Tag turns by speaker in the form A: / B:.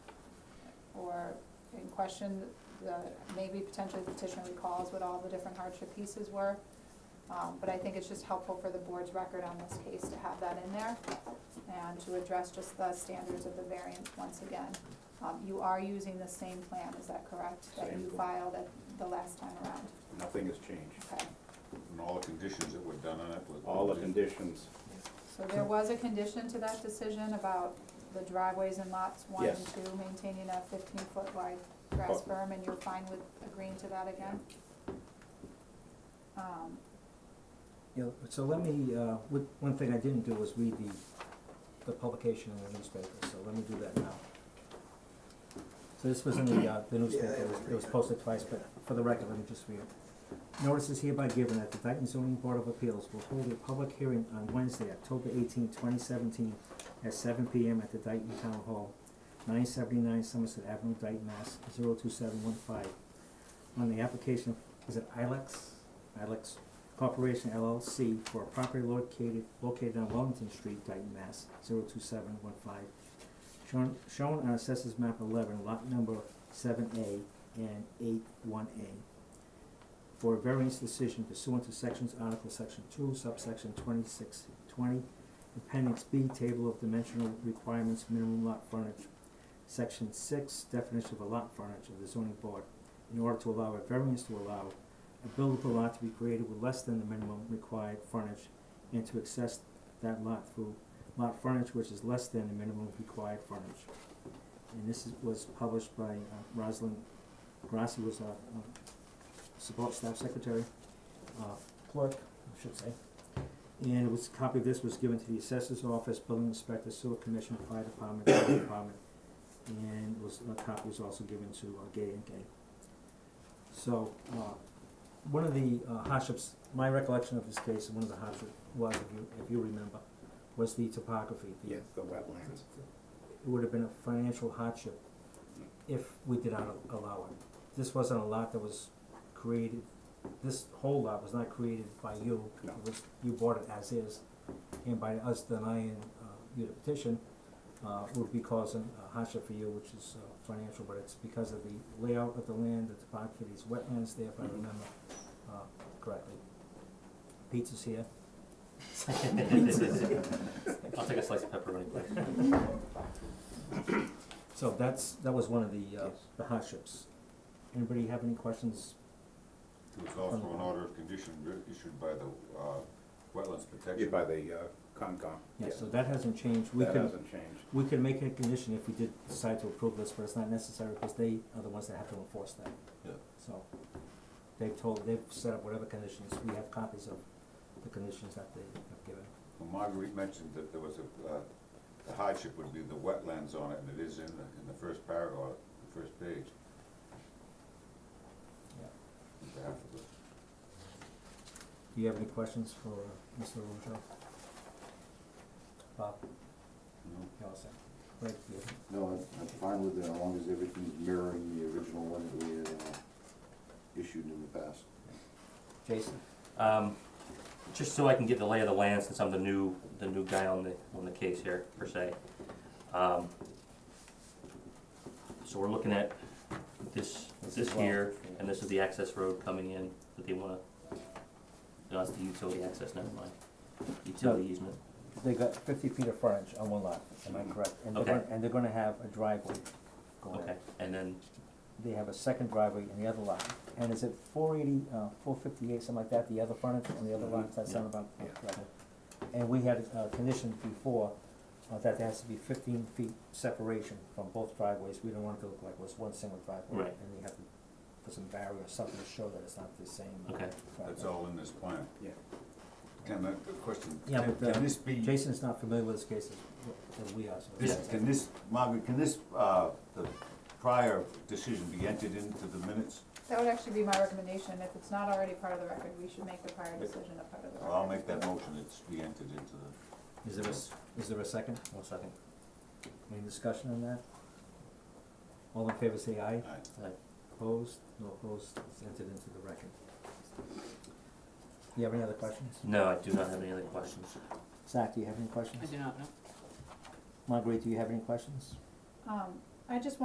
A: question, the, maybe potentially the petitioner recalls what all the different hardship pieces were. Um, but I think it's just helpful for the board's record on this case to have that in there and to address just the standards of the variance once again. Um, you are using the same plan, is that correct? That
B: Same
A: you
B: plan.
A: filed at the last time around,
B: Nothing has changed.
A: okay?
C: And all the conditions that were done on it was.
B: All the conditions,
A: So there was a condition to that decision about the driveways in lots one and
B: Yes.
A: two maintaining a fifteen foot wide grass berm, and you're fine with agreeing to that again? Um,
D: Yeah, so let me, uh, with- one thing I didn't do was read the, the publication in the newspaper, so let me do that now. So this was in the, uh, the newspaper, it was- it was posted twice, but for the record, let me just read it. Notice is hereby given that the Dayton zoning board of appeals will hold a public hearing on Wednesday, October 18, twenty seventeen, at seven P M at the Dayton Town Hall, nine seventy-nine Somerset Avenue, Dayton, Mass, 02715, On the application, is it Ilex, Ilex Corporation LLC for a property located, located on Wellington Street, Dayton, Mass, 02715, Shown, shown on assessors map eleven, lot number seven A and eight one A. For a variance decision pursuant to sections, article section two, subsection twenty-six twenty, appendix B, table of dimensional requirements, minimum lot frontage, section six, definition of a lot frontage of the zoning board, in order to allow a variance to allow a buildable lot to be created with less than the minimum required frontage and to access that lot through lot frontage which is less than the minimum required frontage. And this is, was published by uh, Rosalind Grassi, was our, um, support staff secretary, uh, clerk, I should say. And it was, a copy of this was given to the assessor's office, building inspector, sewer commission, fire department, health department. And was, a copy was also given to uh, Gay and Gay. So, uh, one of the uh, hardships, my recollection of this case, one of the hardships was, if you, if you remember, was the topography. the-
B: yes, the wetlands.
D: It would have been a financial hardship if we did not allow it. This wasn't a lot that was created, this whole lot was not created by you.
B: No.
D: It was, you bought it as is, and by us denying, uh, you the petition, uh, would be causing a hardship for you, which is, uh, financial, but it's because of the layout of the land, the topography, these wetlands there, if I
B: Mhm.
D: remember, uh, correctly. Pizza's here. Pizza's here.
E: I'll take a slice of pepperoni, please.
D: So that's, that was one of the, uh,
B: Yes.
D: the hardships. Anybody have any questions?
C: There was also an order of condition writ- issued by the, uh, Wetlands
B: Yeah,
C: Protection.
B: by the uh, Concom.
D: Yeah, so that hasn't changed. We
B: That
D: can,
B: hasn't changed.
D: we can make it a condition if we did decide to approve this, but it's not necessary because they are the ones that have to enforce that.
E: Yeah.
D: So they've told, they've set up whatever conditions. We have copies of the conditions that they have given.
C: Well, Marguerite mentioned that there was a, uh, the hardship would be the wetlands on it, and it is in the, in the first paragraph, the first page.
D: Yeah.
C: On behalf of the-
D: Do you have any questions for uh, Mr. Rujo? Bob,
C: No?
D: you all set? Great, yeah.
F: No, I'm, I'm fine with it, as long as everything's mirroring the original one that we had, uh, issued in the past.
D: Jason?
E: Um, just so I can get the lay of the land since I'm the new, the new guy on the, on the case here, per se. Um, so we're looking at this,
D: This
E: this
D: is lot-
E: here, and this is the access road coming in that they wanna, no, it's the utility access, never mind. Utility easement,
D: They got fifty feet of frontage on one lot, am I correct? And they're
E: Okay.
D: gonna, and they're gonna have a driveway going in.
E: okay, and then,
D: They have a second driveway in the other lot, and is it four eighty, uh, four fifty-eight, something like that, the other frontage on the other lot, does that sound about
B: Yeah.
D: correct? And we had a condition before, uh, that there has to be fifteen feet separation from both driveways, we don't want it to look like it was one single driveway.
E: Right.
D: And we have to put some barrier or something to show that it's not the same. uh,
E: okay,
C: That's
D: driveway.
C: all in this plan.
B: Yeah.
C: Can that, the question,
D: Yeah,
C: can,
D: but, uh,
C: can this be?
D: Jason's not familiar with this case as, as we are, so.
C: This, can this, Margaret, can this, uh, the prior decision be entered into the minutes?
A: That would actually be my recommendation, if it's not already part of the record, we should make the prior decision a part of the record.
C: Well, I'll make that motion, it's be entered into the,
D: Is there a, s- is there a second?
E: one second.
D: Any discussion on that? All in favor say aye.
C: aye.
D: Opposed? No opposed. It's entered into the record. Do you have any other questions?
E: No, I do not have any other questions.
D: Zach, do you have any questions?
G: I do not know.
D: Marguerite, do you have any questions?
A: Um, I just